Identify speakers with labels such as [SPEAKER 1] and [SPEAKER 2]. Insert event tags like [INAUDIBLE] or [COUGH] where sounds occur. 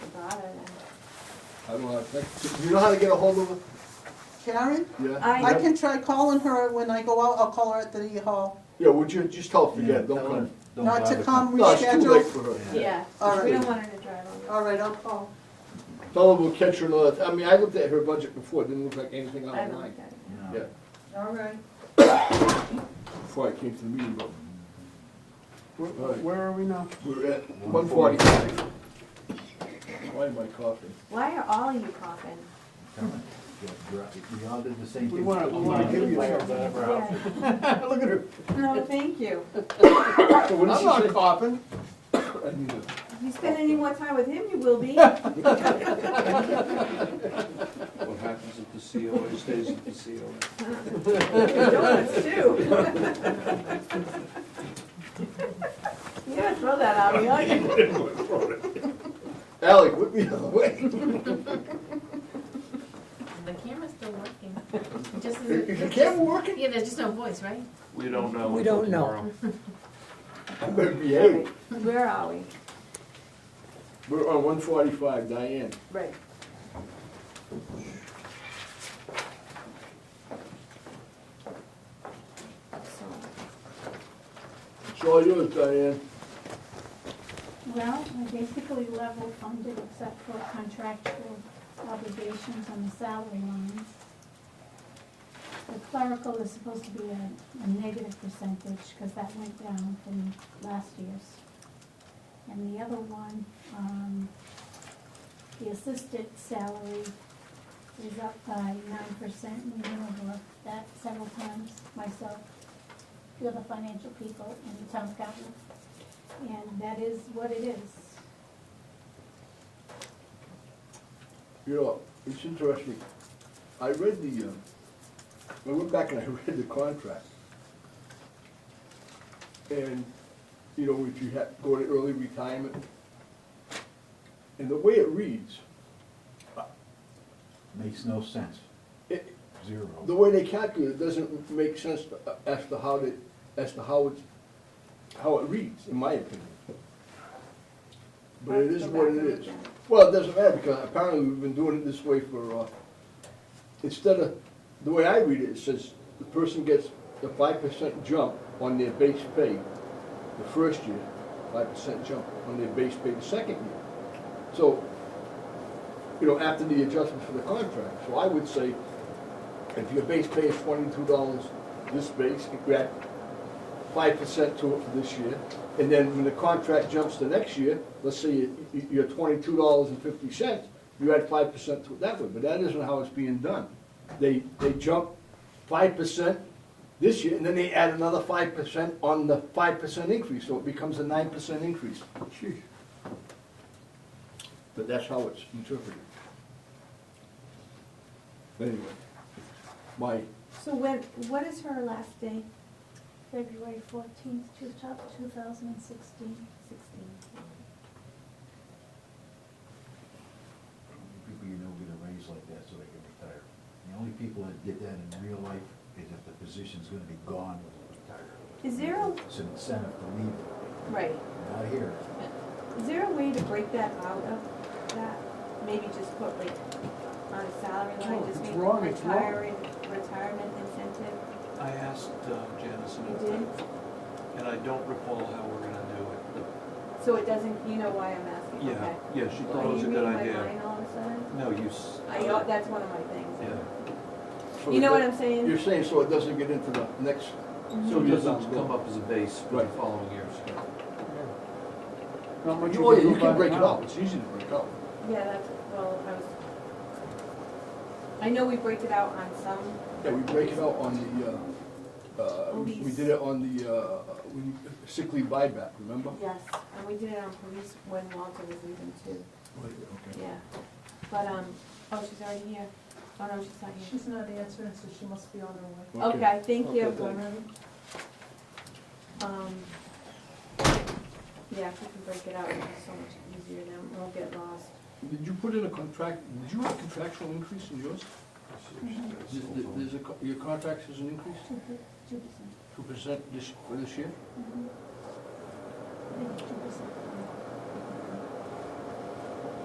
[SPEAKER 1] I don't know, like, you know how to get a hold of her?
[SPEAKER 2] Karen?
[SPEAKER 1] Yeah?
[SPEAKER 3] I-
[SPEAKER 2] I can try calling her when I go out, I'll call her at the hall,
[SPEAKER 1] Yeah, would you, just tell her, forget, it,
[SPEAKER 4] Yeah,
[SPEAKER 1] don't
[SPEAKER 4] tell her
[SPEAKER 1] come.
[SPEAKER 4] don't
[SPEAKER 2] not to
[SPEAKER 4] bother
[SPEAKER 2] come
[SPEAKER 1] No, it's too late
[SPEAKER 2] reschedule.
[SPEAKER 1] for her.
[SPEAKER 3] Yeah,
[SPEAKER 2] All right.
[SPEAKER 3] we don't want her to drive on.
[SPEAKER 2] All right, I'll call.
[SPEAKER 1] Tell her we'll catch her another, th- I mean, I looked at her budget before, it didn't look like anything out
[SPEAKER 3] I
[SPEAKER 1] of
[SPEAKER 3] don't
[SPEAKER 1] line.
[SPEAKER 3] like that.
[SPEAKER 4] No.
[SPEAKER 1] Yeah,
[SPEAKER 2] All right.
[SPEAKER 1] before I came to the meeting, but
[SPEAKER 5] Where,
[SPEAKER 1] Right.
[SPEAKER 5] where are we now?
[SPEAKER 1] we were at one forty-five. Why am I coughing?
[SPEAKER 3] Why are all you coughing?
[SPEAKER 4] Come on, get drunk. We all did the same thing.
[SPEAKER 5] We wanna, we wanna give you something.
[SPEAKER 3] Yeah.
[SPEAKER 5] Look at her.
[SPEAKER 3] No, thank you.
[SPEAKER 1] So
[SPEAKER 5] I'm
[SPEAKER 1] what did she
[SPEAKER 5] not
[SPEAKER 1] say?
[SPEAKER 5] coughing.
[SPEAKER 1] I need a-
[SPEAKER 3] If you spend any more time with him, you will
[SPEAKER 2] [LAUGHS]
[SPEAKER 3] be.
[SPEAKER 6] What happens at the COA stays at the COA.
[SPEAKER 3] Donuts
[SPEAKER 2] [LAUGHS]
[SPEAKER 3] too. You gotta throw that out, we like it.
[SPEAKER 1] Ally, whip me the other way.
[SPEAKER 7] The camera's still working. It Just
[SPEAKER 1] Is is the
[SPEAKER 7] isn't.
[SPEAKER 1] camera working?
[SPEAKER 7] Yeah, there's just no voice, right?
[SPEAKER 6] We don't know.
[SPEAKER 8] We
[SPEAKER 6] until
[SPEAKER 8] don't know.
[SPEAKER 6] tomorrow.
[SPEAKER 1] I better behave.
[SPEAKER 3] Where are we?
[SPEAKER 1] We're on one forty-five, Diane.
[SPEAKER 3] Right. So.
[SPEAKER 1] It's all yours, Diane.
[SPEAKER 9] Well, we're basically level funded except for contractual obligations on the salary lines. The clerical is supposed to be a, a negative percentage, because that went down from last year's. And the other one, um, the assistant salary is up by nine percent, and we went over that several times, myself, the other financial people, and the town accountant. And that is what it is.
[SPEAKER 1] You know, it's interesting. I read the, uh, I went back and I [LAUGHS] read the contract. And, you know, if you have, go to early retirement. And the way it reads,
[SPEAKER 4] Makes no sense,
[SPEAKER 1] it,
[SPEAKER 4] zero.
[SPEAKER 1] the way they calculate it doesn't make sense to- uh, as to how they, as to how it's, how it reads, in my opinion. But it is what it is. Well, it doesn't matter, because apparently we've been doing it this way for, uh, instead of, the way I read it, it says the person gets the five percent jump on their base pay the first year, five percent jump on their base pay the second year. So, you know, after the adjustment for the contract, so I would say, if your base pay is twenty-two dollars, this base, you grab five percent to it for this year, and then when the contract jumps to next year, let's say you- you- you're twenty-two dollars and fifty cents, you add five percent to it that way, but that isn't how it's being done. They, they jump five percent this year, and then they add another five percent on the five percent increase, so it becomes a nine percent increase. Jeez. But that's how it's interpreted. Anyway, my
[SPEAKER 3] So when, what is her last day?
[SPEAKER 9] February fourteenth, two thousand and sixteen.
[SPEAKER 3] Sixteen.
[SPEAKER 4] People you know get a raise like that so they can retire. The only people that get that in real life is if the position's gonna be gone when they retire.
[SPEAKER 3] Is there a,
[SPEAKER 4] It's an incentive to leave it,
[SPEAKER 3] right,
[SPEAKER 4] not here.
[SPEAKER 3] is there a way to break that out of that? Maybe just put like on a salary line,
[SPEAKER 5] No,
[SPEAKER 3] just
[SPEAKER 5] it's
[SPEAKER 3] make
[SPEAKER 5] wrong, it's wrong.
[SPEAKER 3] retiring, retirement incentive?
[SPEAKER 6] I asked uh, Janice
[SPEAKER 3] You
[SPEAKER 6] about
[SPEAKER 3] did?
[SPEAKER 6] that, and I don't recall how we're gonna do it. The-
[SPEAKER 3] So it doesn't, you know why I'm asking,
[SPEAKER 6] Yeah,
[SPEAKER 3] okay?
[SPEAKER 6] yeah, she
[SPEAKER 3] Are
[SPEAKER 6] thought it was a good
[SPEAKER 3] you reading my
[SPEAKER 6] idea.
[SPEAKER 3] mind all of a sudden?
[SPEAKER 6] No, you. s-
[SPEAKER 3] I, oh, that's one of my things.
[SPEAKER 6] Yeah.
[SPEAKER 1] So
[SPEAKER 3] You know what
[SPEAKER 1] that-
[SPEAKER 3] I'm saying?
[SPEAKER 1] You're saying so it doesn't get into the next.
[SPEAKER 6] So it doesn't
[SPEAKER 1] doesn't
[SPEAKER 6] come
[SPEAKER 1] go-
[SPEAKER 6] up as a base for the
[SPEAKER 1] Right.
[SPEAKER 6] following years.
[SPEAKER 5] Not much
[SPEAKER 1] You, oh, yeah,
[SPEAKER 5] do
[SPEAKER 1] you
[SPEAKER 5] about
[SPEAKER 1] can break it
[SPEAKER 5] now.
[SPEAKER 1] up, it's easy to break up.
[SPEAKER 3] Yeah, that's, well, I was, I know we break it out on some,
[SPEAKER 1] Yeah, we break it out on the, uh, uh, we we did it on the, uh, when you- sick leave buyback, remember?
[SPEAKER 3] yes, and we did it on police when Walter was leaving too,
[SPEAKER 1] Wait, okay.
[SPEAKER 3] yeah. But, um, oh, she's already here. Oh, no, she's not here.
[SPEAKER 2] She's not answering, so she must be on her way.
[SPEAKER 3] Okay, thank
[SPEAKER 1] Okay,
[SPEAKER 3] you.
[SPEAKER 1] thanks.
[SPEAKER 3] Um, yeah, if we can break it out, it'll be so much easier then, we won't get lost.
[SPEAKER 1] Did you put in a contract, did you have contractual increase in yours? There's- There's a, co- your contract is an increase,
[SPEAKER 9] Two percent. Mm-hmm.
[SPEAKER 1] two percent this, for this year?
[SPEAKER 9] I think it's two percent.